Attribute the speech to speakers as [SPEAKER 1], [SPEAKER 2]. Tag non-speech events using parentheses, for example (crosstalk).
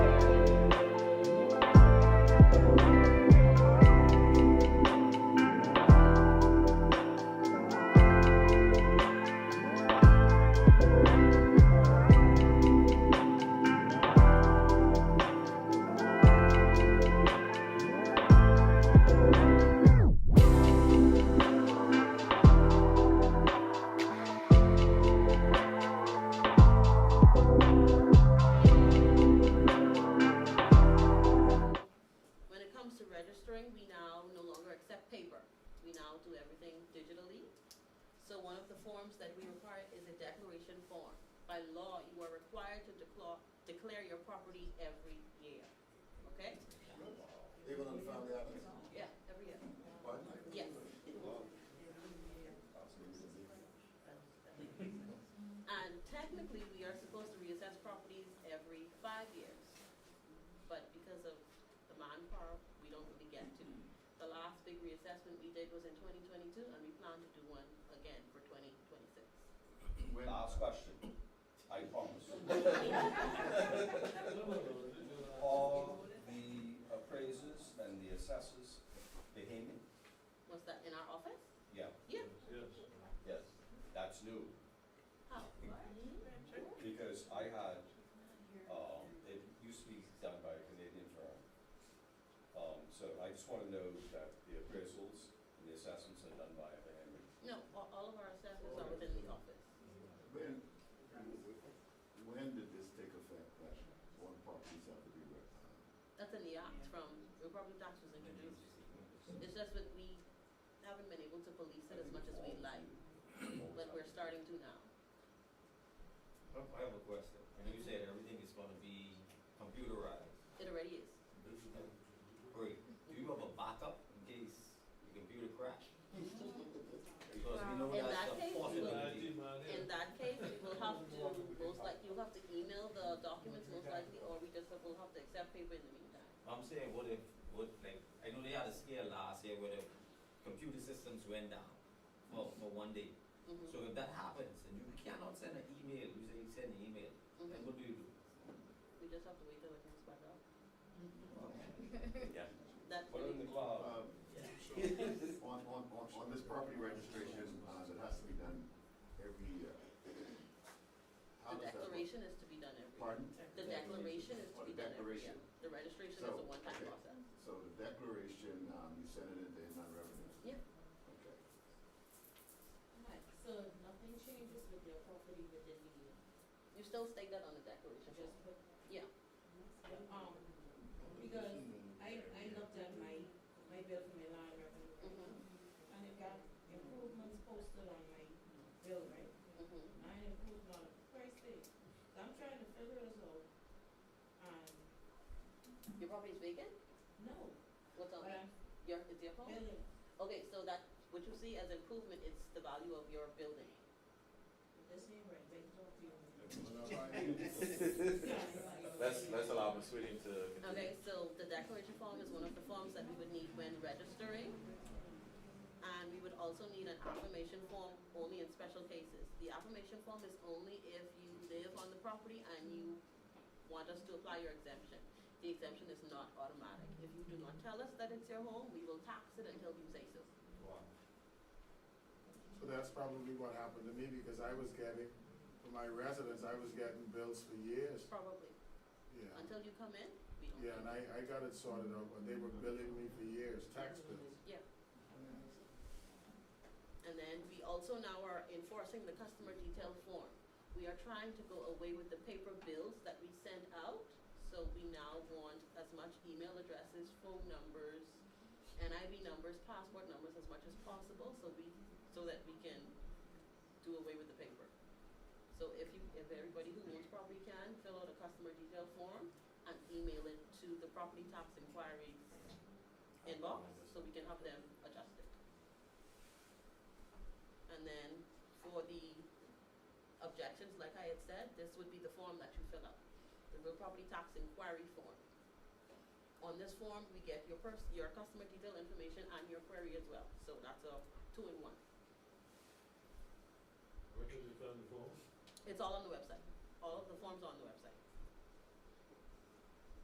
[SPEAKER 1] So one of the forms that we require is a declaration form. By law, you are required to declare, declare your property every year, okay?
[SPEAKER 2] Even on the family island?
[SPEAKER 1] Yeah, every year,
[SPEAKER 2] Pardon?
[SPEAKER 1] yes. And technically, we are supposed to reassess properties every five years. But because of the manpower, we don't really get to. The last big reassessment we did was in twenty twenty-two, and we plan to do one again for twenty twenty-six.
[SPEAKER 3] Last question, I promise. All the appraisers and the assessors, they hang it?
[SPEAKER 1] Was that in our office?
[SPEAKER 3] Yeah,
[SPEAKER 1] Yeah.
[SPEAKER 3] yes, that's new,
[SPEAKER 1] How?
[SPEAKER 3] because I had, um, it used to be done by a Canadian firm. Um, so I just wanna know that the appraisals and the assessments are done by a Henry.
[SPEAKER 1] No, all, all of our assessments are within the office.
[SPEAKER 2] When, when did this take effect, that one properties have to be recognized?
[SPEAKER 1] That's in the act from, the property tax was introduced. It's just that we haven't been able to police it as much as we'd like, but we're starting to now.
[SPEAKER 4] I have a question. And you said everything is gonna be computerized.
[SPEAKER 1] It already is.
[SPEAKER 4] Great. Do you have a backup in case the computer crash? Because we know
[SPEAKER 1] In that
[SPEAKER 4] that's
[SPEAKER 1] case,
[SPEAKER 4] a
[SPEAKER 1] you will-
[SPEAKER 4] possibility.
[SPEAKER 1] In that case, we will have to, most like, you'll have to email the documents most likely, or we just will have to accept paper in the meantime.
[SPEAKER 4] I'm saying, what if, what, like, I know they had a scare last year where the computer systems went down for, for one day.
[SPEAKER 1] Mhm,
[SPEAKER 4] So if that happens and you cannot send an email, you say you send an email,
[SPEAKER 1] mhm.
[SPEAKER 4] then what do you do?
[SPEAKER 1] We just have to wait till it comes back up.
[SPEAKER 4] Yeah.
[SPEAKER 1] (laughs) That's
[SPEAKER 3] Put it in
[SPEAKER 1] really,
[SPEAKER 3] the
[SPEAKER 1] (laughs)
[SPEAKER 3] cloud.
[SPEAKER 2] Um, On, on, on, on this property registration, uh, that has to be done every year. How
[SPEAKER 1] the
[SPEAKER 2] does that work?
[SPEAKER 1] declaration is to be done every year.
[SPEAKER 2] Pardon?
[SPEAKER 1] The declaration is to
[SPEAKER 2] Oh,
[SPEAKER 1] be
[SPEAKER 2] the
[SPEAKER 1] done every year.
[SPEAKER 2] declaration.
[SPEAKER 1] The registration is
[SPEAKER 2] So,
[SPEAKER 1] a one-time
[SPEAKER 2] okay.
[SPEAKER 1] process.
[SPEAKER 2] So the declaration, um, you send it into inland revenue?
[SPEAKER 1] Yeah.
[SPEAKER 2] Okay.
[SPEAKER 5] Right, so nothing changes with your property within the year,
[SPEAKER 1] You still state that on the declaration,
[SPEAKER 5] just put,
[SPEAKER 1] yeah.
[SPEAKER 5] um, because I, I looked at my, my bill for my land revenue,
[SPEAKER 1] Mhm,
[SPEAKER 5] and it got improvements posted on my bill, right?
[SPEAKER 1] mhm.
[SPEAKER 5] I improved on price tag, so I'm trying to figure this out, and,
[SPEAKER 1] Your property is vacant?
[SPEAKER 5] no,
[SPEAKER 1] What's on
[SPEAKER 5] but
[SPEAKER 1] it?
[SPEAKER 5] I'm
[SPEAKER 1] Your, it's your home?
[SPEAKER 5] billing,
[SPEAKER 1] Okay, so that, what you see as improvement is the value of your building.
[SPEAKER 5] this ain't right, they talk to
[SPEAKER 6] (laughs)
[SPEAKER 5] you.
[SPEAKER 6] Let's, let's allow Ms. Whitting to continue.
[SPEAKER 1] Okay, so the declaration form is one of the forms that we would need when registering. And we would also need an affirmation form only in special cases. The affirmation form is only if you live on the property and you want us to apply your exemption. The exemption is not automatic. If you do not tell us that it's your home, we will tax it until you say so.
[SPEAKER 7] So that's probably what happened to me, because I was getting, for my residence, I was getting bills for years,
[SPEAKER 1] Probably.
[SPEAKER 7] yeah.
[SPEAKER 1] Until you come in, we don't.
[SPEAKER 7] Yeah, and I, I got it sorted out, but they were billing me for years, tax bills.
[SPEAKER 1] Yeah. And then we also now are enforcing the customer detail form. We are trying to go away with the paper bills that we send out, so we now want as much email addresses, phone numbers, NIV numbers, passport numbers as much as possible, so we, so that we can do away with the paper. So if you, if everybody who owns property can, fill out a customer detail form and email it to the property tax inquiries inbox, so we can have them adjust it. And then for the objections, like I had said, this would be the form that you fill out, the real property tax inquiry form. On this form, we get your pers- your customer detail information and your query as well, so that's a two in one.
[SPEAKER 8] Where can we find the form?
[SPEAKER 1] It's all on the website, all of the forms are on the website.